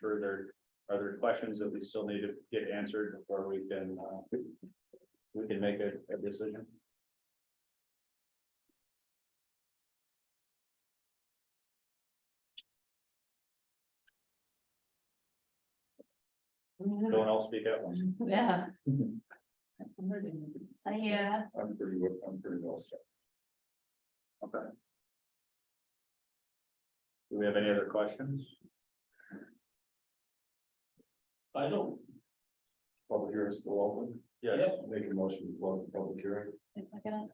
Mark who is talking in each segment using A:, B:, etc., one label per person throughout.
A: sure there are there questions that we still need to get answered before we can, uh, we can make a, a decision.
B: Mm-hmm.
A: No one else speak up?
C: Yeah,
D: I,
C: yeah,
A: I'm pretty, well- I'm pretty well set. Okay. Do we have any other questions?
D: I don't,
A: Public hearing is still open?
D: Yes.
A: Make a motion to close the public hearing.
C: it's not gonna,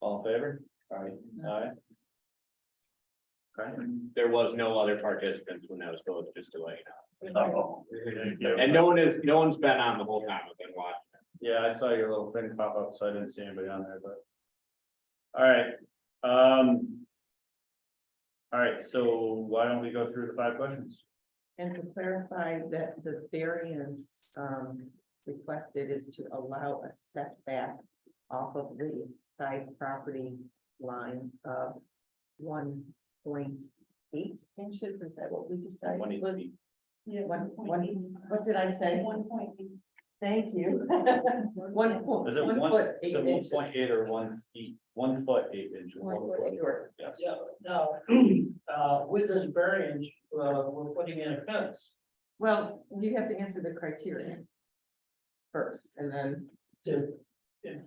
A: All in favor?
D: Aye.
A: Aye. Okay.
D: there was no other participants when that was still just delayed.
A: Oh.
D: And no one is, no one's been on the whole time I've been watching.
A: Yeah, I saw your little thing pop up, so I didn't see anybody on there, but. All right, um. All right, so why don't we go through the five questions?
B: And to clarify that the variance um requested is to allow a setback off of the side property line of one point eight inches, is that what we decided?
A: One each.
B: Was-
A: feet.
B: Yeah, one, one, what did I say? One point eight. Thank you. One point,
A: Is it one,
B: one foot,
A: is
B: eight
A: it one
B: inches.
A: point eight or one feet, one foot, eight inches?
B: One foot,
A: foot.
B: or-
A: Yes,
E: Yeah, now, uh, with this variance, uh, we're putting in a fence.
B: Well, you have to answer the criteria first, and then
E: The, the,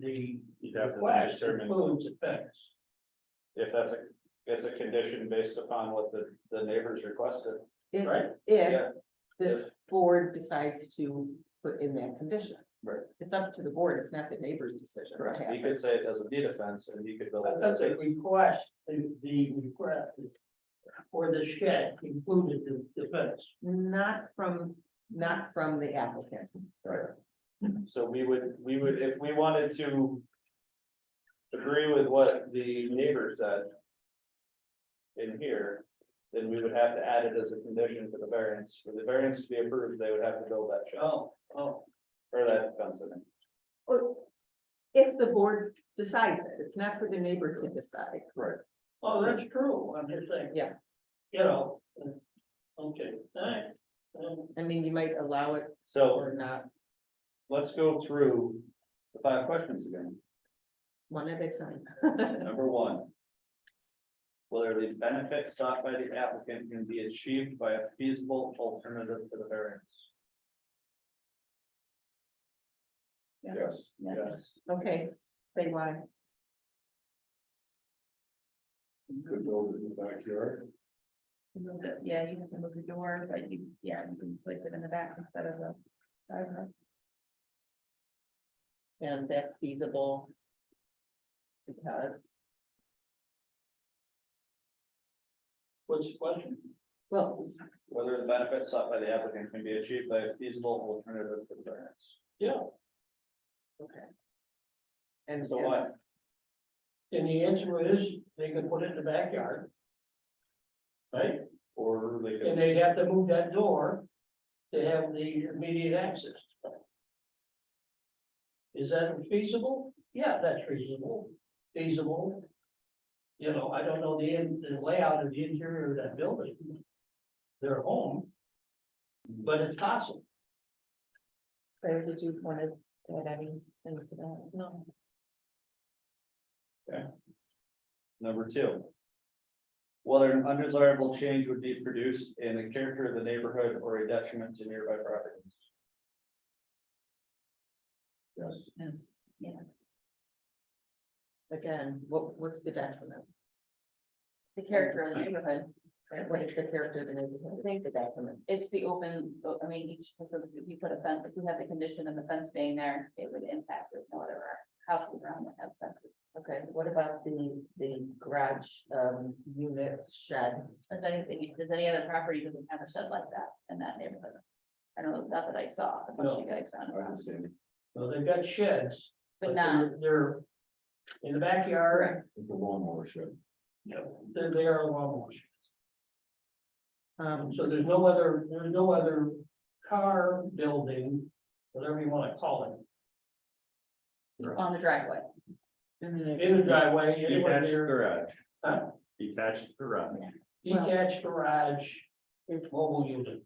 E: the
A: you'd have to
E: request
A: determine
E: includes a fence.
A: if that's a, it's a condition based upon what the, the neighbors requested.
B: If,
A: Right?
B: if
A: Yeah.
B: this board decides to put in that condition.
A: Right.
B: It's up to the board, it's not the neighbor's decision. what
A: You could
B: happens.
A: say it doesn't need a fence and you could build. a
E: That's a
A: fence.
E: request, the, the request for the shed included the, the fence.
B: Not from, not from the applicant.
A: Right. So we would, we would, if we wanted to. Agree with what the neighbor said. In here, then we would have to add it as a condition for the variance, for the variance to be approved, they would have to build that shed
E: Oh, oh,
A: or that fence in.
B: Or if the board decides it, it's not for the neighbor to decide.
A: Right.
E: oh, that's true, I'm just saying.
B: Yeah.
E: You know, uh, okay, thanks. Um,
B: I mean, you might allow it
A: So
B: or not,
A: let's go through the five questions again.
B: one at a time.
A: Number one. Whether the benefits sought by the applicant can be achieved by a feasible alternative to the variance.
D: Yes.
A: Yes.
B: Okay, say why.
D: Could build it in the backyard.
C: move the- yeah, you have to move the door, but you, yeah, you can place it in the back instead of the. driver.
B: And that's feasible. Because,
E: What's the question?
B: well,
A: Whether the benefits sought by the applicant can be achieved by a feasible alternative to the variance.
E: Yeah,
B: okay. And
A: So why?
E: and the answer is they can put it in the backyard. Right?
A: Or they
E: And
A: could,
E: they'd have to move that door to have the immediate access. Is that feasible? Yeah, that's reasonable, feasible. You know, I don't know the, in- the layout of the interior of that building. Their home. But it's possible.
C: Claire, did you want to add anything to that? No.
A: number two. Whether an undesirable change would be produced in the character of the neighborhood or a detriment to nearby properties.
D: Yes.
B: Again, what, what's the detriment?
C: The character of the neighborhood, right,
B: What
C: like,
B: is the character of the neighborhood? What's the detriment?
C: it's the open, I mean, each, so if you put a fence, if you have the condition of the fence being there, it would impact with whatever houses around that has fences.
B: Okay, what about the, the garage, um, units shed?
C: Does anything, does any other property doesn't have a shed like that in that neighborhood? I don't know, not that I saw, a bunch
E: No.
C: you guys found,
A: I understand.
E: So they've got sheds.
C: but not,
E: they're- They're in the backyard,
D: The lawnmower shed.
E: you know, they're, they are lawnmowers.
B: Um,
E: So there's no other, there's no other car building, whatever you wanna call it.
C: on the driveway.
E: In the driveway, anywhere
A: Detached
E: near
A: garage.
E: Huh?
A: Detached garage.
E: detached garage mobile unit.